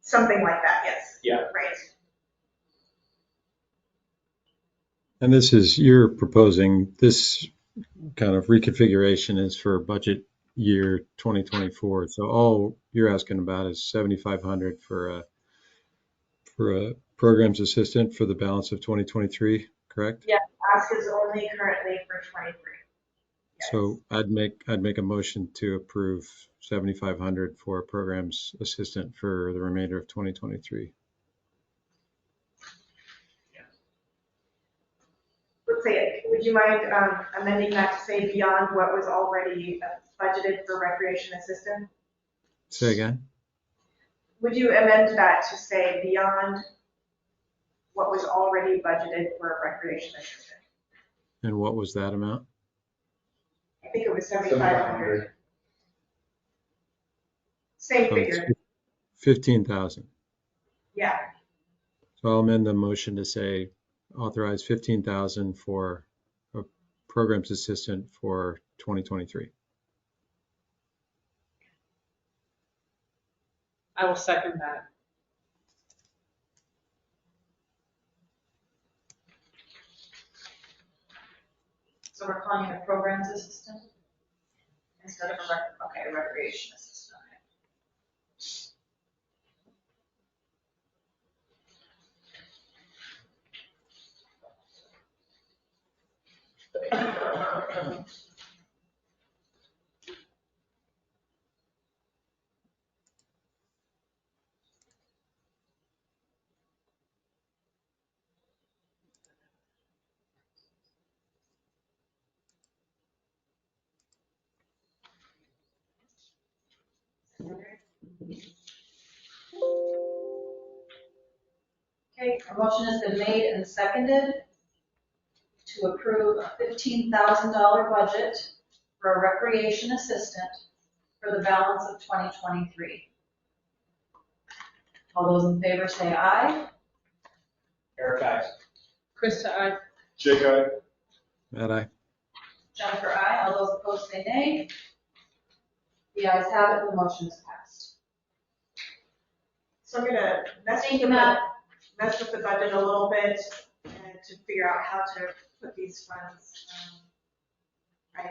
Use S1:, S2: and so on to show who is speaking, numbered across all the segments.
S1: Something like that, yes.
S2: Yeah.
S1: Right.
S3: And this is, you're proposing, this kind of reconfiguration is for budget year 2024. So all you're asking about is 7,500 for a, for a programs assistant for the balance of 2023, correct?
S1: Ask is only currently for 23. Yes.
S3: So I'd make, I'd make a motion to approve 7,500 for a programs assistant for the remainder of 2023.
S1: Let's say, would you mind um, amending that to say beyond what was already uh, budgeted for recreation assistant?
S3: Say again?
S1: Would you amend that to say beyond what was already budgeted for recreation assistant?
S3: And what was that amount?
S1: I think it was 7,500.
S2: 7,500.
S1: Same
S3: Oh, it's
S1: figure,
S3: 15,000.
S1: yeah.
S3: So I'll amend the motion to say authorize 15,000 for a programs assistant for 2023.
S4: I will second that.
S5: So we're calling it a programs assistant? Instead of a rec, okay, recreation assistant. Okay, a motion has been made and seconded to approve a fifteen thousand dollar budget for a recreation assistant for the balance of twenty twenty-three. All those in favor say aye.
S2: Eric, I.
S4: Krista, I.
S2: Jake, I.
S3: Matt, I,
S5: Jennifer, aye. All those opposed say nay. The ayes have it, the motion is passed.
S1: So I'm gonna mess with
S5: Thank
S1: the,
S5: you, Matt.
S1: mess with the budget a little bit and to figure out how to put these funds. um, I,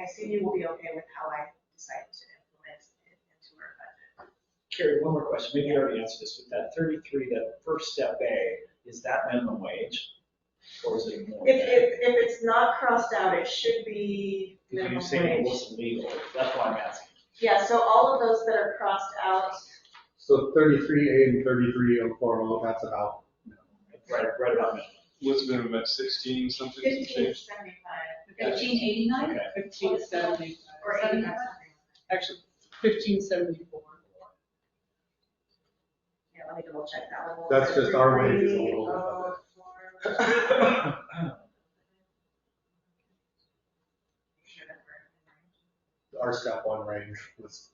S1: I assume you will be okay with how I decide to implement it into our budget.
S2: Carrie, one more question. Maybe you already answered this, but that 33, that first step A, is that minimum wage? Or is it more?
S1: If, if, if it's not crossed out, it should be
S2: Because you
S1: minimum
S2: say it
S1: wage.
S2: wasn't legal. That's why I'm asking.
S1: Yeah, so all of those that are crossed out,
S6: So thirty-three A and thirty-three O four O, that's about.
S2: Right, right about minimum.
S7: What's the minimum, about sixteen something? to
S1: fifteen
S7: change?
S1: seventy-five
S5: Eighteen eighty-nine?
S2: Okay.
S4: Fifteen seventy,
S1: or eighty-five.
S4: actually, fifteen seventy-four.
S1: Yeah, let me double check that one.
S6: That's just our wages
S1: Three,
S6: alone.
S1: oh, four.
S6: Our step one range was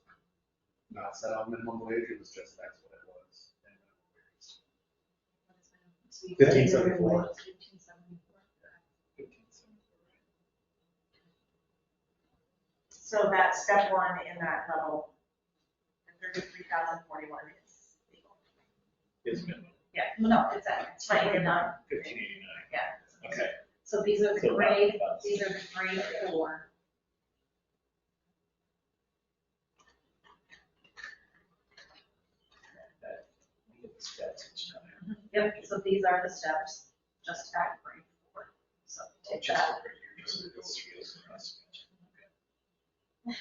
S6: not set on minimum wage, it was just that's what it was. Fifteen seventy-four.
S5: Fifteen seventy-four.
S1: So that step one in that level, the thirty-three thousand forty-one is legal.
S2: Is minimum
S5: Yeah, no, it's at, it's right here, not
S2: 1589.
S5: Yeah.
S2: Okay.
S5: So these are the
S2: So uh, that-
S5: grade,
S2: that's-
S5: these are the grade four.
S2: that- That's each time.
S5: Yep, so these are the steps, just at grade four. So take
S2: Just
S5: that.
S2: over here, just so it goes through this process. Okay,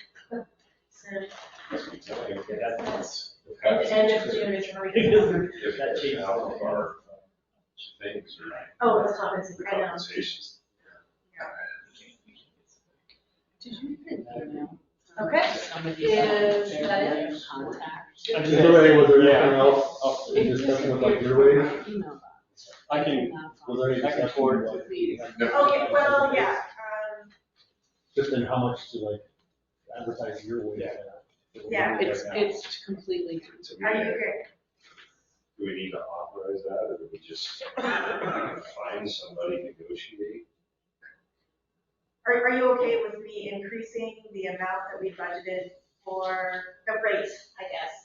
S2: that- that's-
S1: At the end of June is where we
S2: It
S1: can.
S2: doesn't- if that changes.
S7: Out of our um, things, right?
S1: Oh, it's compensated,
S7: The
S1: I know.
S7: compensations.
S4: Did you get that now?
S5: Okay.
S4: Some of these-
S5: Is that it?
S4: Contact.
S2: I'm just-
S6: Is there any- was there
S2: Yeah.
S6: anything else Oh, in discussion with like your wage?
S4: Email
S2: I can
S4: box.
S6: Was there any
S2: I can
S6: discussion
S2: forward
S6: about-
S1: Okay, well, yeah, um,
S6: Just in how much to like advertise your wage.
S7: Yeah.
S6: at.
S1: Yeah.
S4: It's, it's completely,
S7: So
S1: are you
S7: we-
S1: good?
S7: Do we need to authorize that, or do we just find somebody, negotiate?
S1: Are, are you okay with me increasing the amount that we budgeted for, the rate, I guess,